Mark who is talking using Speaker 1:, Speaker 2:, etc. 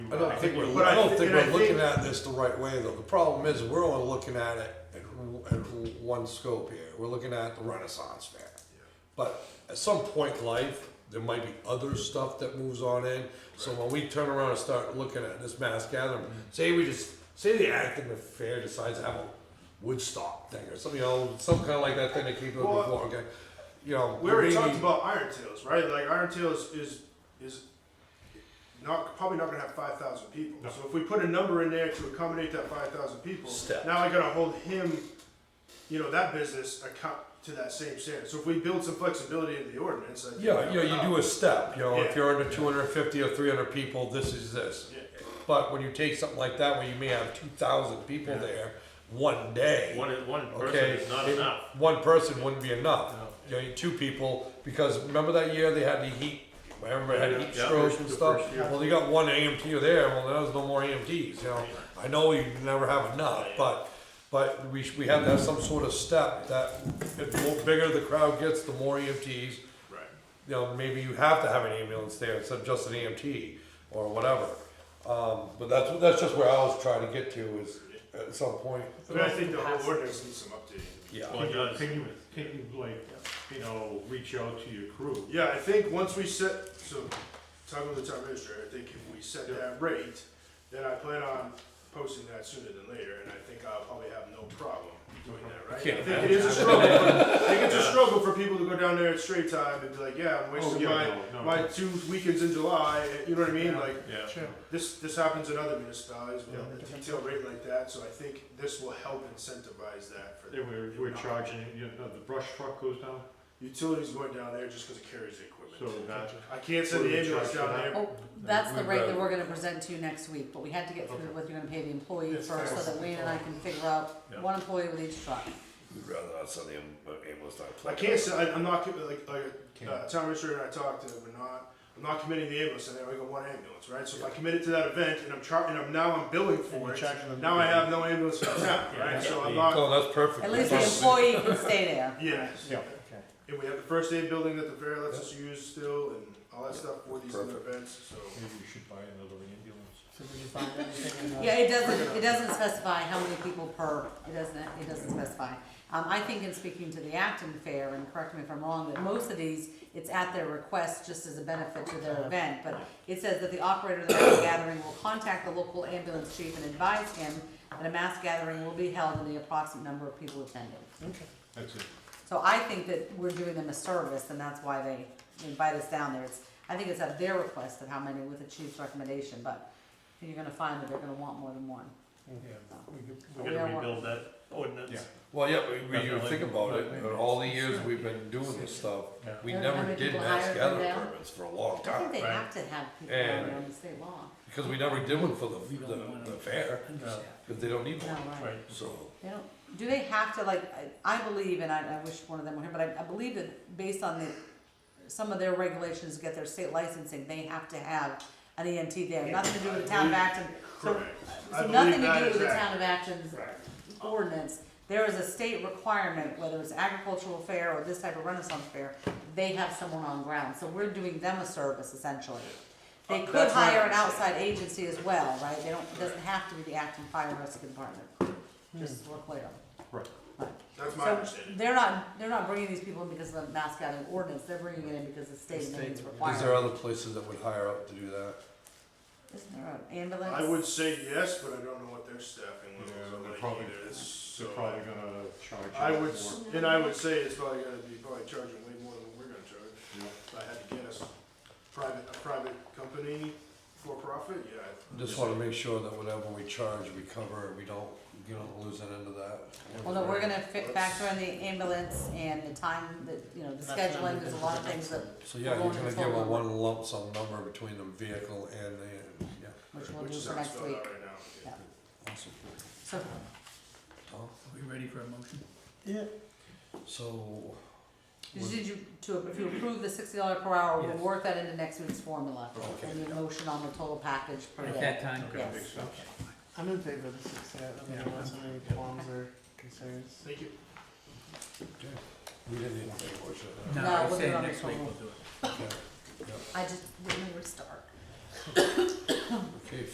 Speaker 1: I don't think we're,
Speaker 2: But I
Speaker 1: I don't
Speaker 2: thi-
Speaker 1: think
Speaker 2: and I
Speaker 1: we're looking
Speaker 2: think-
Speaker 1: at this the right way though. The problem is, we're only looking at it at, w- at w- one scope here. We're looking at the Renaissance Fair. But at some point in life, there might be other stuff that moves on in. So when we turn around and start looking at this mass gathering,
Speaker 2: Mm-hmm.
Speaker 1: say we just, say the Acton Fair decides to have a Woodstock thing or something, you know, some kind of like that thing they keep doing
Speaker 2: Well,
Speaker 1: before, okay? You know.
Speaker 2: We already talked
Speaker 1: maybe-
Speaker 2: about Iron Tails, right? Like Iron Tails is is not probably not gonna have five thousand people. So if we put a number in there to accommodate that five thousand people,
Speaker 1: Step.
Speaker 2: now I gotta hold him, you know, that business account to that same standard. So if we build some flexibility into the ordinance, I think
Speaker 1: Yeah, you know, you do a
Speaker 2: it.
Speaker 1: step, you know, if
Speaker 2: Yeah.
Speaker 1: you're under two hundred and fifty or three hundred people, this is this.
Speaker 2: Yeah.
Speaker 1: But when you take something like that, where you may have two thousand people there, one day.
Speaker 3: One, one person
Speaker 1: Okay,
Speaker 3: is not
Speaker 1: it-
Speaker 3: enough.
Speaker 1: One person wouldn't be enough, you know, two people, because remember that year they had the heat, remember they had heat
Speaker 3: Yeah,
Speaker 1: stroke and
Speaker 3: the
Speaker 1: stuff?
Speaker 3: first year.
Speaker 1: Well, you got one AMT there, well, there was no more AMTs, you know, I know you never have enough, but, but we, sh- we have to have some sort of step that, the more bigger the crowd gets, the more EMTs,
Speaker 2: Right.
Speaker 1: you know, maybe you have to have an ambulance there instead of just an EMT or whatever. Um, but that's, that's just where I was trying to get to is at some point.
Speaker 2: But I think the whole ordinance needs some updating.
Speaker 1: Yeah.
Speaker 3: Well, it does.
Speaker 4: Can you, can you like, you know, reach out to your crew?
Speaker 2: Yeah, I think once we set, so, talking with the town administrator, I think if we set that rate, then I plan on posting that sooner than later, and I think I'll probably have no problem doing that, right? I think it is a struggle, I think it's a struggle for people to go down there at straight time and be like, yeah, I'm
Speaker 4: Oh,
Speaker 2: wasting
Speaker 4: yeah,
Speaker 2: my,
Speaker 4: no, no.
Speaker 2: my two weekends in July, and you know what I mean, like,
Speaker 3: Yeah.
Speaker 2: this, this happens in other municipalities, with a detailed rate like that, so I think this will help incentivize that for
Speaker 4: They were, we're charging, you know, the brush truck goes down,
Speaker 2: Utilities going down there just because it carries the equipment.
Speaker 4: so that,
Speaker 2: I can't send the ambulance down there
Speaker 5: Oh, that's the
Speaker 1: We've
Speaker 5: rate
Speaker 1: got-
Speaker 5: that we're gonna present to you next week, but we had to get through whether you're gonna pay the employee
Speaker 2: It's
Speaker 5: first, so
Speaker 2: fixed.
Speaker 5: that Wayne and I can figure out
Speaker 3: Yeah.
Speaker 5: one employee with each truck.
Speaker 1: You'd rather not send the ambulance down.
Speaker 2: I can't say, I, I'm not, commi- like, like, uh, town administrator and I talked, and we're not, I'm not committing the ambulance, and I only got one ambulance, right? So if I commit it to that event, and I'm char, and I'm, now I'm billing for it, now I have no ambulance for the town, right? So I'm not,
Speaker 1: Oh, that's perfect.
Speaker 5: At least the employee can stay there.
Speaker 2: yeah. And we have the first aid building that the fair lets us use still, and all that stuff for these other
Speaker 1: Perfect.
Speaker 2: events, so.
Speaker 4: maybe we should buy another ambulance.
Speaker 6: So we can find everything in the-
Speaker 5: Yeah, it doesn't, it doesn't specify how many people per, it doesn't, it doesn't specify. Um, I think in speaking to the Acton Fair, and correct me if I'm wrong, that most of these, it's at their request just as a benefit to their event. But it says that the operator of the mass gathering will contact the local ambulance chief and advise him that a mass gathering will be held in the approximate number of people attending.
Speaker 4: That's it.
Speaker 5: So I think that we're doing them a service, and that's why they invite us down there. It's, I think it's at their request of how many with the chief's recommendation, but you're gonna find that they're gonna want more than one.
Speaker 3: We gotta rebuild that ordinance.
Speaker 1: Well, yeah, we, we you
Speaker 3: Definitely.
Speaker 1: think about it, in all the years we've been doing this stuff,
Speaker 3: Yeah.
Speaker 1: we
Speaker 5: Yeah. How
Speaker 1: never
Speaker 5: many
Speaker 1: did
Speaker 5: people
Speaker 1: mass
Speaker 5: hired them
Speaker 1: gathering
Speaker 5: down?
Speaker 1: permits for a long
Speaker 5: I
Speaker 1: time.
Speaker 5: think they
Speaker 3: Right.
Speaker 5: have to have people
Speaker 1: And-
Speaker 5: down there on the state law.
Speaker 1: Because we never did one for the, the, the fair, because they don't need
Speaker 5: No,
Speaker 1: one,
Speaker 5: right.
Speaker 1: so.
Speaker 5: They don't, do they have to, like, I, I believe, and I, I wish one of them were here, but I, I believe that based on the, some of their regulations, to get their state licensing, they have to have an EMT there. Nothing to do with the town of Acton. So-
Speaker 2: I
Speaker 5: So
Speaker 2: believe
Speaker 5: nothing to
Speaker 2: that
Speaker 5: do
Speaker 2: is
Speaker 5: with the
Speaker 2: accurate.
Speaker 5: town of Acton's ordinance. There is a state requirement, whether it's agricultural fair or this type of renaissance fair, they have someone on ground, so we're doing them a service essentially. They
Speaker 2: Uh,
Speaker 5: could
Speaker 2: that's my
Speaker 5: hire an
Speaker 2: understanding.
Speaker 5: outside agency as well, right? They don't, it doesn't have to be the Acton Fire and Rescue Department, just so we're clear.
Speaker 4: Right.
Speaker 2: Hmm. That's my
Speaker 5: So
Speaker 2: understanding.
Speaker 5: they're not, they're not bringing these people in because of the mass gathering ordinance, they're bringing it in because the state made these
Speaker 1: Is there
Speaker 5: requirements.
Speaker 1: other places that would hire up to do that?
Speaker 5: Isn't there an ambulance?
Speaker 2: I would say yes, but I don't know what their staffing
Speaker 4: Yeah,
Speaker 2: levels
Speaker 4: they're
Speaker 2: are
Speaker 4: probably,
Speaker 2: like either, so.
Speaker 4: they're probably gonna charge.
Speaker 2: I
Speaker 4: you
Speaker 2: would,
Speaker 4: more.
Speaker 2: s- and I would say it's probably gonna be probably charging way more than what we're gonna charge.
Speaker 4: Yeah.
Speaker 2: If I had to guess, private, a private company, for profit, yeah.
Speaker 1: Just wanna make sure that whatever we charge, we cover, and we don't, you know, lose it into that.
Speaker 5: Well, no, we're gonna fit, factor in the ambulance and the time, that you know, the scheduling, there's a lot of things that,
Speaker 1: So, yeah, you're
Speaker 5: We're going
Speaker 1: gonna
Speaker 5: to
Speaker 1: give a
Speaker 5: total.
Speaker 1: one lump sum number between the vehicle and the, yeah,
Speaker 5: which we'll
Speaker 2: Which
Speaker 5: do
Speaker 2: is
Speaker 5: for
Speaker 2: how it's
Speaker 5: next
Speaker 2: spelled
Speaker 5: week.
Speaker 2: out right now.
Speaker 5: Yeah.
Speaker 1: awesome,
Speaker 5: So,
Speaker 1: Tom,
Speaker 7: Are we ready for a motion?
Speaker 1: so.
Speaker 5: did you, to, if you approve the sixty dollar per hour, we'll
Speaker 7: Yes.
Speaker 5: work that into next week's formula,
Speaker 1: Okay.
Speaker 5: and the motion on the total package per
Speaker 7: At
Speaker 5: day.
Speaker 7: that time?
Speaker 5: Yes.
Speaker 6: I'm in favor of the six set, I mean, unless there are any qualms or concerns.
Speaker 2: Thank you.
Speaker 1: Okay. We didn't need to take a motion.
Speaker 7: No,
Speaker 5: No,
Speaker 7: I
Speaker 5: we'll
Speaker 7: was
Speaker 5: do it
Speaker 7: saying
Speaker 5: on
Speaker 7: next
Speaker 5: the
Speaker 7: week
Speaker 5: phone.
Speaker 7: we'll do it.
Speaker 1: Okay.
Speaker 5: I just, didn't know where to start.
Speaker 1: Okay,